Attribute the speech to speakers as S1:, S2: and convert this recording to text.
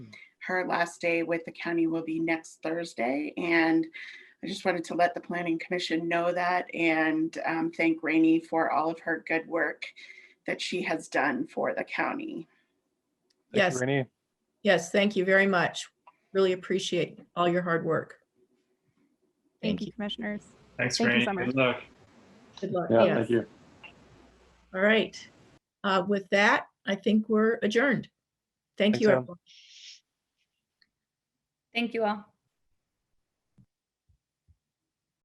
S1: her last day with the county will be next Thursday. And I just wanted to let the planning commission know that and um, thank Rainey for all of her good work that she has done for the county.
S2: Thank you,
S3: Yes.
S2: Rainey.
S3: Yes, thank you very much. Really appreciate all your hard work.
S4: Thank you, commissioners.
S5: Thanks,
S4: Thank you
S5: Rainey.
S4: so much.
S5: Good luck.
S3: Good luck.
S2: Yeah,
S3: Yes.
S2: thank you.
S3: All right. Uh, With that, I think we're adjourned. Thank
S2: Thanks,
S3: you,
S2: Em.
S3: everyone.
S6: Thank you all.